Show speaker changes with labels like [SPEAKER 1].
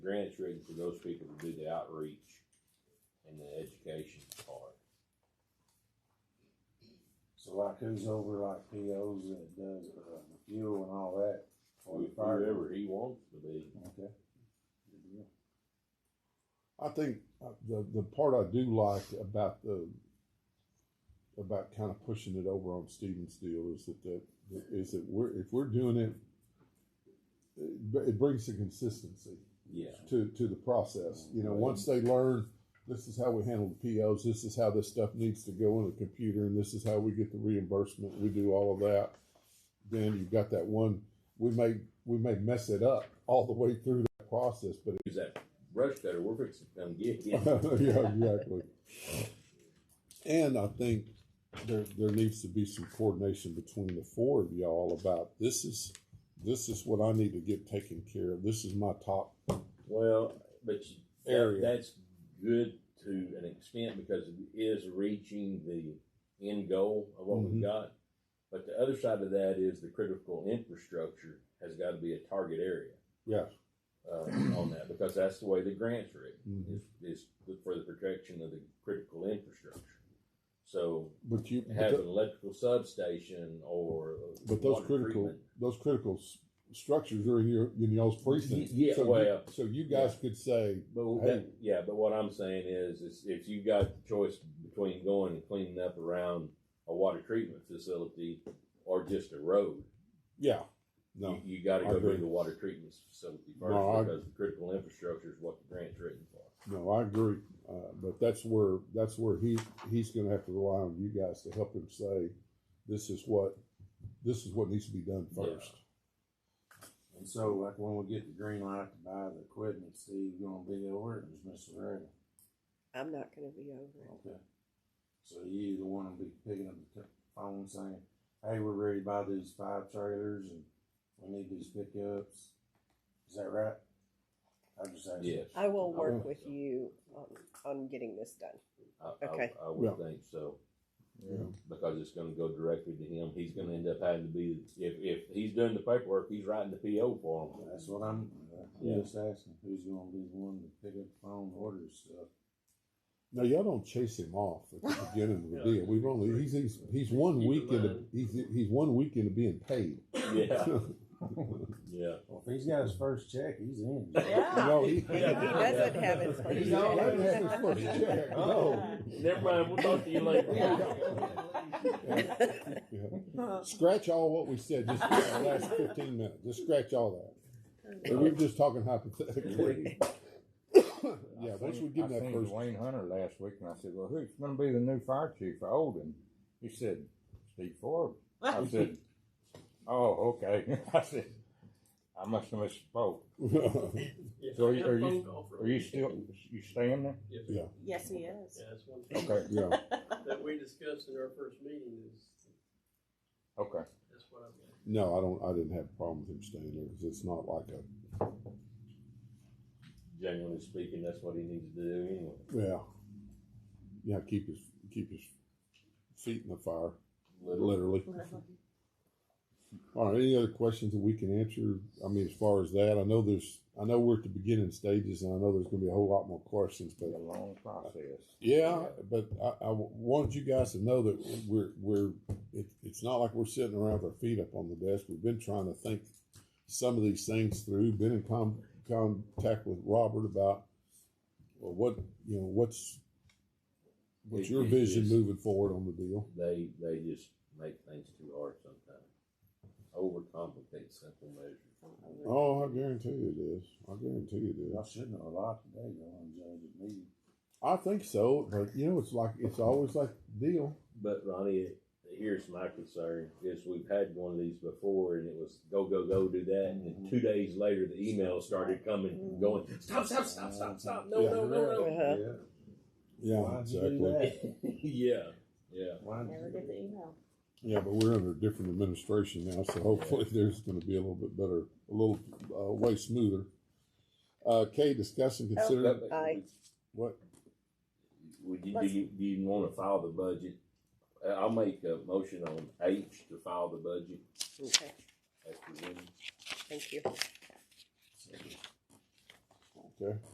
[SPEAKER 1] grants written for those people to do the outreach and the education part.
[SPEAKER 2] So like who's over like POs that does uh, the fuel and all that? for the fire?
[SPEAKER 1] Whoever he wants to be.
[SPEAKER 2] Okay. Good deal.
[SPEAKER 3] I think uh, the the part I do like about the about kind of pushing it over on Stevens deal is that the is that we're if we're doing it, it, br- it brings the consistency
[SPEAKER 1] Yeah.
[SPEAKER 3] to to the process. You know, once they learn this is how we handle the POs, this is how this stuff needs to go in the computer, and this is how we get the reimbursement. We do all of that. Then you've got that one. We may we may mess it up all the way through that process, but
[SPEAKER 1] Use that brush cutter, we're fixing to come get him.
[SPEAKER 3] yeah, exactly. And I think there there needs to be some coordination between the four of y'all about this is this is what I need to get taken care of. This is my top.
[SPEAKER 1] Well, but you, that-
[SPEAKER 3] Area.
[SPEAKER 1] that's good to an extent because it is reaching the end goal of what
[SPEAKER 3] Mhm.
[SPEAKER 1] we've got. But the other side of that is the critical infrastructure has got to be a target area
[SPEAKER 3] Yeah.
[SPEAKER 1] uh, on that because that's the way the grants are written
[SPEAKER 3] Mhm.
[SPEAKER 1] is, is for the protection of the critical infrastructure. So
[SPEAKER 3] But you but
[SPEAKER 1] have
[SPEAKER 3] tho-
[SPEAKER 1] an electrical substation or
[SPEAKER 3] But those
[SPEAKER 1] water
[SPEAKER 3] critical,
[SPEAKER 1] treatment.
[SPEAKER 3] those critical s- structures are in your, in y'all's precinct.
[SPEAKER 1] Y- yeah,
[SPEAKER 3] So you-
[SPEAKER 1] well,
[SPEAKER 3] So you guys could say,
[SPEAKER 1] But w-
[SPEAKER 3] Hey.
[SPEAKER 1] that- yeah, but what I'm saying is, is if you got the choice between going and cleaning up around a water treatment facility or just a road,
[SPEAKER 3] yeah, no,
[SPEAKER 1] you, you got to
[SPEAKER 3] I
[SPEAKER 1] go
[SPEAKER 3] agree.
[SPEAKER 1] through the water treatment facility first
[SPEAKER 3] No, I-
[SPEAKER 1] because the critical infrastructure is what the grant's written for.
[SPEAKER 3] no, I agree. Uh, but that's where, that's where he, he's gonna have to rely on you guys to help him say, this is what, this is what needs to be done first.
[SPEAKER 2] And so like when we get the green light to buy the equipment, Steve gonna be over it, or is Mr. Ray?
[SPEAKER 4] I'm not gonna be over it.
[SPEAKER 2] Okay. So you the one will be picking up the t- phone saying, hey, we're ready to buy these five trailers and we need these pickups. Is that right? I just asked.
[SPEAKER 1] Yes, I,
[SPEAKER 4] I will
[SPEAKER 2] I
[SPEAKER 4] work
[SPEAKER 2] will.
[SPEAKER 4] with you on, on getting this done.
[SPEAKER 1] I-
[SPEAKER 4] Okay.
[SPEAKER 1] I, would
[SPEAKER 3] Yeah.
[SPEAKER 1] think so
[SPEAKER 3] Yeah.
[SPEAKER 1] because it's going to go directly to him. He's going to end up having to be if if he's doing the paperwork, he's writing the PO for him.
[SPEAKER 2] That's what I'm,
[SPEAKER 1] Yeah.
[SPEAKER 2] I'm just asking, who's gonna be the one to pick up the phone and order stuff?
[SPEAKER 3] Now, y'all don't chase him off at the beginning of the
[SPEAKER 5] Yeah.
[SPEAKER 3] deal. We've only, he's, he's, he's one
[SPEAKER 5] Keep in
[SPEAKER 3] week into,
[SPEAKER 5] mind.
[SPEAKER 3] he's, he's one week into being paid.
[SPEAKER 1] Yeah, yeah.
[SPEAKER 2] Well, if he's got his first check, he's in.
[SPEAKER 4] Yeah.
[SPEAKER 3] No, he-
[SPEAKER 4] He doesn't have his first
[SPEAKER 3] He doesn't have his
[SPEAKER 4] check.
[SPEAKER 3] first check, no.
[SPEAKER 1] Never mind. We'll talk to you later.
[SPEAKER 3] Yeah. Scratch all what we said just for the last fifteen minutes. Just scratch all that. And we're just talking hypothetically. Yeah, once we give
[SPEAKER 6] I
[SPEAKER 3] him that
[SPEAKER 6] seen
[SPEAKER 3] first,
[SPEAKER 6] Dwayne Hunter last week, and I said, "Well, who's going to be the new fire chief for Olden?" He said, "Steve Forbes." I said, "Oh, okay." I said, "I must have misspoke." So are you- are you- Are you still you staying there?
[SPEAKER 5] Yes,
[SPEAKER 3] Yeah.
[SPEAKER 7] Yes, he is.
[SPEAKER 5] Yeah, that's one thing
[SPEAKER 6] Okay,
[SPEAKER 3] yeah,
[SPEAKER 5] that we discussed in our first meeting is,
[SPEAKER 6] okay.
[SPEAKER 5] that's what I'm.
[SPEAKER 3] no, I don't, I didn't have a problem with him staying there because it's not like a,
[SPEAKER 1] Generally speaking, that's what he needs to do anyway.
[SPEAKER 3] yeah. Yeah, keep his, keep his feet in the fire,
[SPEAKER 1] Literally.
[SPEAKER 3] literally. All right, any other questions that we can answer? I mean, as far as that, I know there's, I know we're at the beginning stages and I know there's gonna be a whole lot more questions, but
[SPEAKER 6] It's a long process.
[SPEAKER 3] Yeah, but I, I wanted you guys to know that we're we're it, it's not like we're sitting around with our feet up on the desk. We've been trying to think some of these things through. Been in con- contact with Robert about well, what you know what's what's your
[SPEAKER 1] It- it
[SPEAKER 3] vision
[SPEAKER 1] is-
[SPEAKER 3] moving forward on the deal.
[SPEAKER 1] They they just make things too hard sometimes. Overcomplicate simple measures.
[SPEAKER 3] Oh, I guarantee you it is. I guarantee you it
[SPEAKER 2] Y'all
[SPEAKER 3] is.
[SPEAKER 2] should know a lot today, y'all and judge at me.
[SPEAKER 3] I think so, but you know, it's like it's always like deal.
[SPEAKER 1] But Ronnie, here's my concern: is we've had one of these before, and it was go go go do that, and then two days later the emails started coming, going stop stop stop stop stop no no no
[SPEAKER 4] Uh-huh.
[SPEAKER 3] Yeah,
[SPEAKER 2] Why'd you do
[SPEAKER 3] exactly.
[SPEAKER 2] that?
[SPEAKER 1] no yeah yeah
[SPEAKER 2] Why'd
[SPEAKER 7] Never
[SPEAKER 2] you do
[SPEAKER 7] get the email.
[SPEAKER 3] Yeah, but we're under a different administration now, so hopefully there's going to be a little bit better, a little uh, way smoother. Uh, Kay, discuss and consider
[SPEAKER 1] But-
[SPEAKER 4] Aye.
[SPEAKER 3] what?
[SPEAKER 1] Would you, do you, do you want to file the budget? Uh, I'll make a motion on H to file the budget
[SPEAKER 4] Okay,
[SPEAKER 1] as presented.
[SPEAKER 4] thank you.
[SPEAKER 2] that?
[SPEAKER 3] Okay.